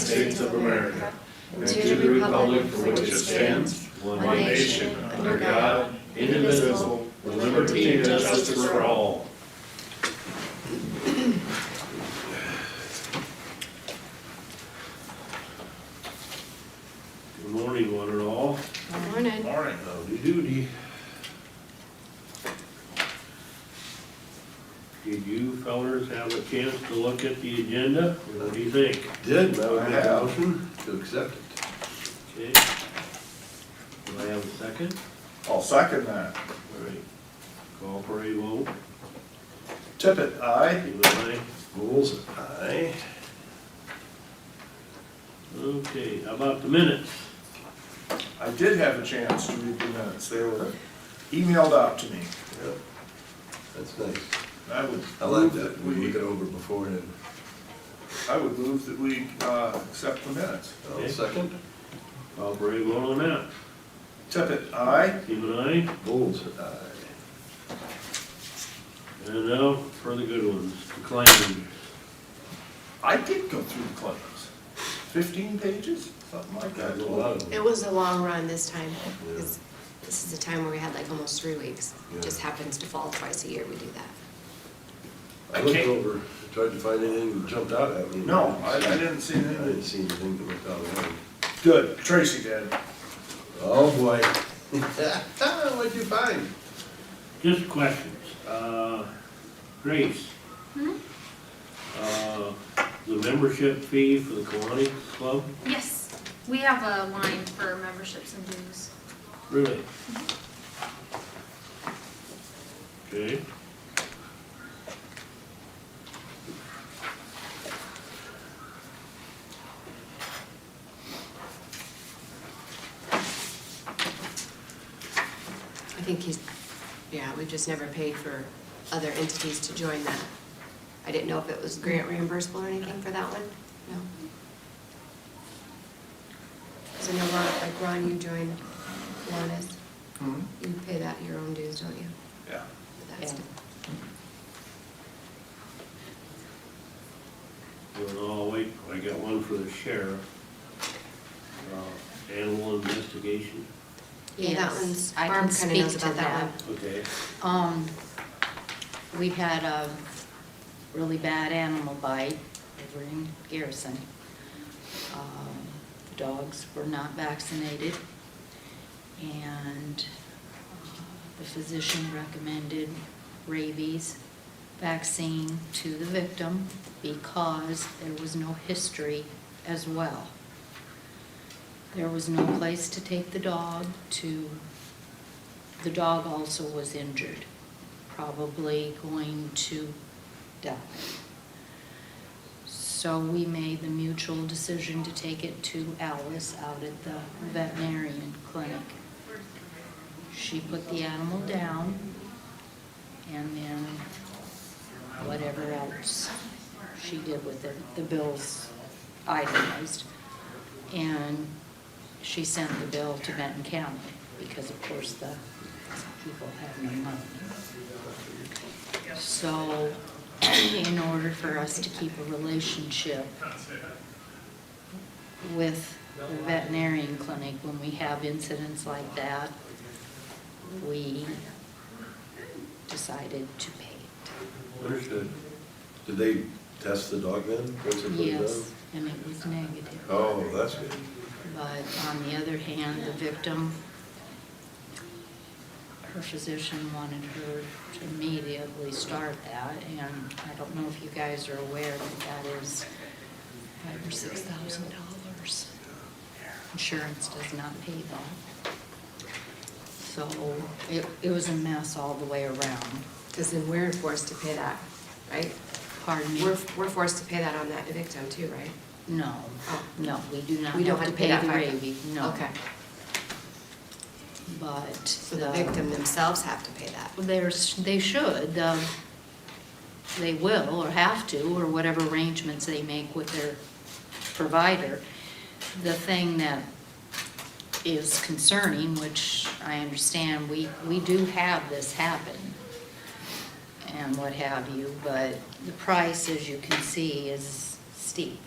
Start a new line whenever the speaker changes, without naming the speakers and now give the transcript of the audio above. States of America and to the republic for which it stands, one nation, under God, indivisible, with liberty and justice for all.
Good morning, one and all.
Morning.
Morning. Howdy doody. Did you fellers have a chance to look at the agenda? What do you think?
Did,
That would
I
be a
have to accept it.
Okay. Do I have a second?
I'll second that.
All right. Call for a vote.
Tippit, aye.
Give it a aye.
Bulls, aye.
Okay, how about the minutes?
I did have a chance to read the minutes. They were emailed out to me.
Yep. That's nice.
I would.
I
move
like that, we look it over before and then,
I would move that we, uh, accept the minutes.
I'll uh, second.
Call for a vote on that.
Tippit, aye.
Give it a aye.
Bulls, aye.
And now for the good ones, the claims.
I did go through the claims. Fifteen pages, something like that.
Got a lot of
It
them.
was a long run this time.
Yeah.
This this is a time where we had like almost three weeks.
Yeah.
It just happens to fall twice a year we do that.
I looked over, tried to find anything that jumped out at me.
No, I, I didn't see
I didn't
anything.
see anything that looked out of line.
Good, Tracy did.
Oh, boy. What'd you find?
Just questions. Uh, Grace? Uh, The membership fee for the Kiwanis Club?
Yes, we have a line for memberships and dues.
Really? Okay.
I think he's, yeah, we've just never paid for other entities to join that. I didn't know if it was grant reimbursable or anything for that one. No. Because I know Ron, like Ron, you joined Kiwanis.
Hmm?
You pay that your own dues, don't you?
Yeah.
for that stuff?
Well, I'll wait, I got one for the sheriff. Uh, Animal investigation,
Yeah, that
Yes,
one's,
I
Barb
can
kind of knows
speak to
about that one.
okay.
Um, we had a really bad animal bite over in Garrison. Um, the Dogs were not vaccinated, and uh, the physician recommended rabies vaccine to the victim because there was no history as well. There was no place to take the dog to, the dog also was injured, probably going to die. So we made the mutual decision to take it to Alice out at the veterinarian clinic. She put the animal down and then whatever else she did with it, the bills itemized. And she sent the bill to Benton County, because of course the people have no money. So, in order for us to keep a relationship with the veterinarian clinic, when we have incidents like that, we decided to pay it.
Understood.
Did they test the dog then? once they put it down?
Yes, and it was negative.
Oh, that's good.
But on the other hand, the victim, her physician wanted her to immediately start that, and I don't know if you guys are aware, but that is five or six thousand dollars. Insurance does not pay that. So it, it was a mess all the way around.
Because then we're forced to pay that, right?
Pardon me?
We're, we're forced to pay that on that victim too, right?
No,
Oh.
no, we do not
We don't have to
have to
pay
pay
that
the
five-
rabies, no.
Okay,
But.
so the victim themselves have to pay that.
There's, they should, um, they will or have to, or whatever arrangements they make with their provider. The thing that is concerning, which I understand, we, we do have this happen and what have you, but the price, as you can see, is steep.